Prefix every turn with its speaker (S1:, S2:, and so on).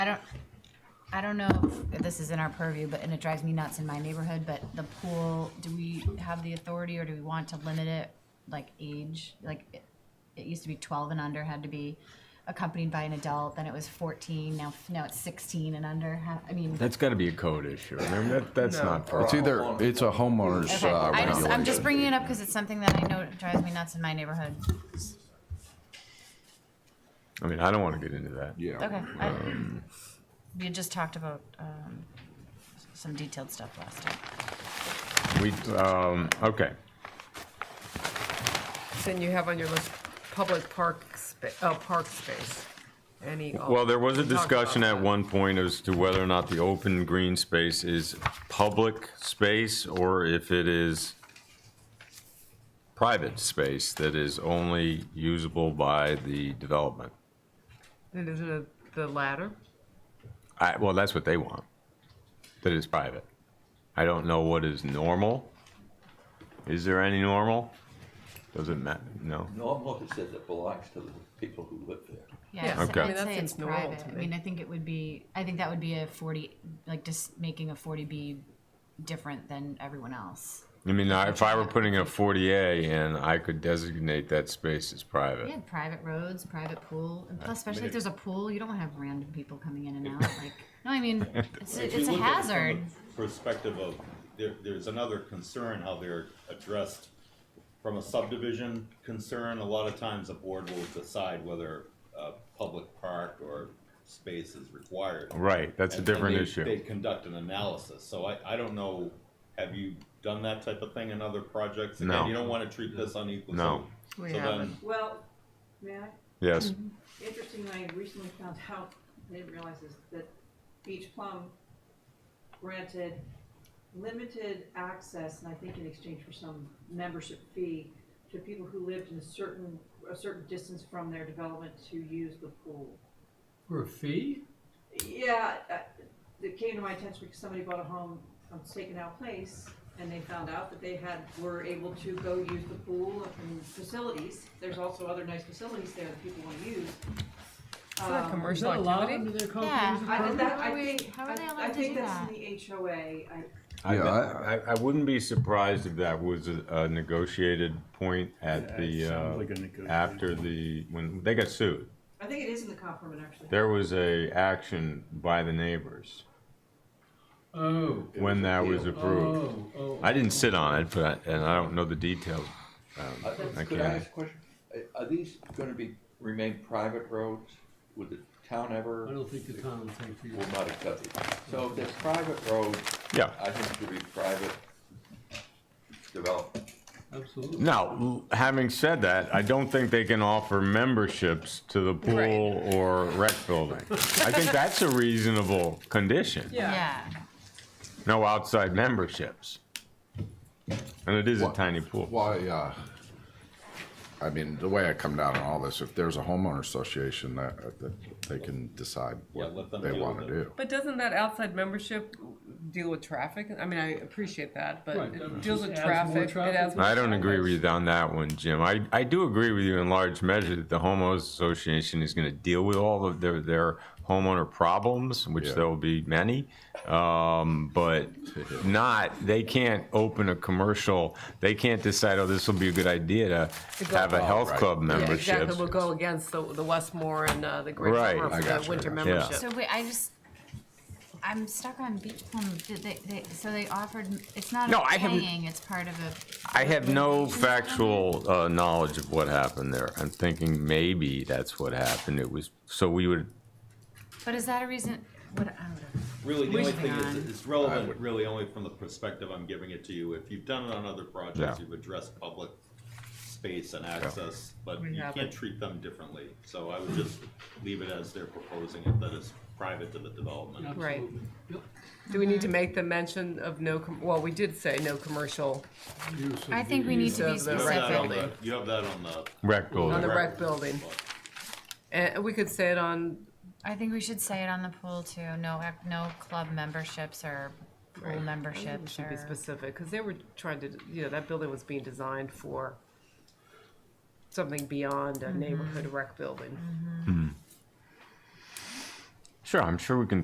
S1: I don't, I don't know if this is in our purview, but, and it drives me nuts in my neighborhood, but the pool, do we have the authority or do we want to limit it, like age? Like, it, it used to be twelve and under had to be accompanied by an adult, then it was fourteen, now, now it's sixteen and under, ha- I mean.
S2: That's got to be a code issue. I mean, that, that's not part
S3: It's
S2: of
S3: either, it's a homeowner's
S1: Okay,
S3: uh,
S1: I just, I'm just
S3: regulation.
S1: bringing it up because it's something that I know drives me nuts in my neighborhood.
S2: I mean, I don't want to get into that.
S3: Yeah. um,
S1: Okay. I- We had just talked about, um, s- some detailed stuff last time.
S2: We, um, okay.
S4: Then you have on your list, public park, spa- uh, park space. Any.
S2: Well, there was a
S4: We talked about
S2: discussion at
S4: that.
S2: one point as to whether or not the open green space is public space or if it is private space that is only usable by the development.
S4: Then Is it a- the latter?
S2: I, well, that's what they want, that it's private. I don't know what is normal. Is there any normal? Does it matter? No.
S5: Normal, it says it belongs to the people who live there.
S4: Yeah.
S1: Yeah, I'd
S2: Okay. I
S1: say-
S2: mean,
S1: I'd
S4: that
S1: say
S4: seems
S1: it's
S4: normal
S1: private.
S4: to
S1: I
S4: me.
S1: mean, I think it would be, I think that would be a forty, like just making a forty B different than everyone else.
S2: I mean, I- if I were putting a 40A in, I could designate that space as private.
S1: Yeah, private roads, private pool, and plus especially if there's a pool, you don't wanna have random people coming in and out, like, no, I mean, it's,
S6: If
S1: a-
S6: you
S1: it's a
S6: look at it from the
S1: hazard.
S6: Perspective of, there, there's another concern how they're addressed. From a subdivision concern, a lot of times a board will decide whether a public park or space is required.
S2: Right, that's a
S6: And- and
S2: different
S6: they-
S2: issue.
S6: They conduct an analysis, so I, I don't know, have you done that type of thing in other projects?
S2: No.
S6: Again, you don't wanna treat this unequally.
S2: No.
S6: So
S4: We
S6: then-
S4: haven't.
S7: Well, Matt,
S2: Yes.
S7: interestingly, I recently found out, I didn't realize this, that Beach Plum granted limited access, and I think in exchange for some membership fee, to people who lived in a certain, a certain distance from their development to use the pool.
S8: For a fee?
S7: Yeah, uh, it came to my attention because somebody bought a home on Staken Out Place, and they found out that they had, were able to go use the pool and facilities. There's also other nice facilities there that people want to use.
S4: Is that a
S7: Um,
S8: Is
S4: commercial
S8: that allowed
S4: activity?
S8: under their
S1: Yeah.
S8: comprehensive
S7: I think
S8: permit?
S7: that, I
S1: How are we-
S7: think,
S1: how are they allowed
S7: I, I
S1: to
S7: think
S1: do
S7: that's
S1: that?
S7: in the HOA, I,
S2: I,
S3: Yeah,
S2: I, I wouldn't be surprised if that was a- a negotiated point at the,
S8: sounds like a
S2: uh,
S8: negotiation.
S2: after the, when, they got sued.
S7: I think it is in the comp permit, actually.
S2: There was a action by the neighbors
S8: Oh,
S2: when that was approved.
S8: oh, oh.
S2: I didn't sit on it, but, and I don't know the details. Um,
S5: Uh,
S2: I
S5: Could I
S2: can't.
S5: ask a question? Uh, Are these gonna be, remain private roads? Would the town ever,
S8: I don't think the town will take you.
S5: will not accept it? So if there's private roads,
S2: Yeah.
S5: I think it should be private development.
S8: Absolutely.
S2: Now, l- having said that, I don't think they can offer memberships to the pool or rec building. I think that's a reasonable condition.
S1: Yeah,
S2: No outside memberships. And it is a
S3: Wha-
S2: tiny pool.
S3: Why, uh, I mean, the way I come down on all this, if there's a homeowner association that, that they can decide
S6: Yeah, let them
S3: what they
S6: deal
S3: wanna
S6: with it.
S3: do.
S4: But doesn't that outside membership deal with traffic? I mean, I appreciate that, but
S8: Right,
S4: it
S8: that
S4: deals
S8: just
S4: with
S8: adds more
S4: traffic. It
S8: traffic.
S4: adds more
S2: I don't agree
S4: traffic.
S2: with you on that one, Jim. I, I do agree with you in large measure that the homeowners association is gonna deal with all of their, their homeowner problems, which
S3: Yeah.
S2: there will be many. Um, but not, they can't open a commercial, they can't decide, oh, this will be a good idea to
S4: go-
S2: have a health
S3: right.
S2: club
S4: Yeah,
S2: membership.
S4: Exactly, we'll go against the, the Westmore and, uh, the Great
S2: Right.
S4: Summer
S2: I
S4: for the
S3: gotcha,
S4: winter
S3: I
S2: gotcha. Yeah.
S4: membership.
S1: so wait, I just, I'm stuck on beach plum, did they, they, so they offered, it's not
S2: No,
S1: a
S2: I haven't-
S1: paying, it's part of a.
S2: I have no factual uh, knowledge of what happened there. I'm thinking maybe that's what happened. It was, so we would,
S1: But is that a reason, what, I don't know.
S6: Really, the only
S1: Moving
S6: thing is,
S1: on.
S6: it's relevant really only from the perspective I'm giving it to you. If you've done it on other projects,
S2: Yeah.
S6: you've addressed public space and access, but
S4: We
S6: you
S4: haven't.
S6: can't treat them differently. So I would just leave it as they're proposing it, that it's private to the development.
S4: Right.
S8: Absolutely. Yep.
S4: Do we need to make the mention of no, com- well, we did say no commercial
S8: Use of
S1: I think we
S8: the-
S1: need to be
S4: Use of
S6: You
S4: the
S6: have
S4: rec
S6: that on
S1: specific.
S4: building.
S6: the- You have that on the.
S2: rec
S4: on the
S2: building.
S4: rec building. And we could say it on,
S1: I think we should say it on the pool too. No, ac- no club memberships or pool
S4: we
S1: memberships
S4: should be
S1: or.
S4: specific, because they were trying to, you know, that building was being designed for something beyond a neighborhood rec building.
S2: Sure, I'm sure we can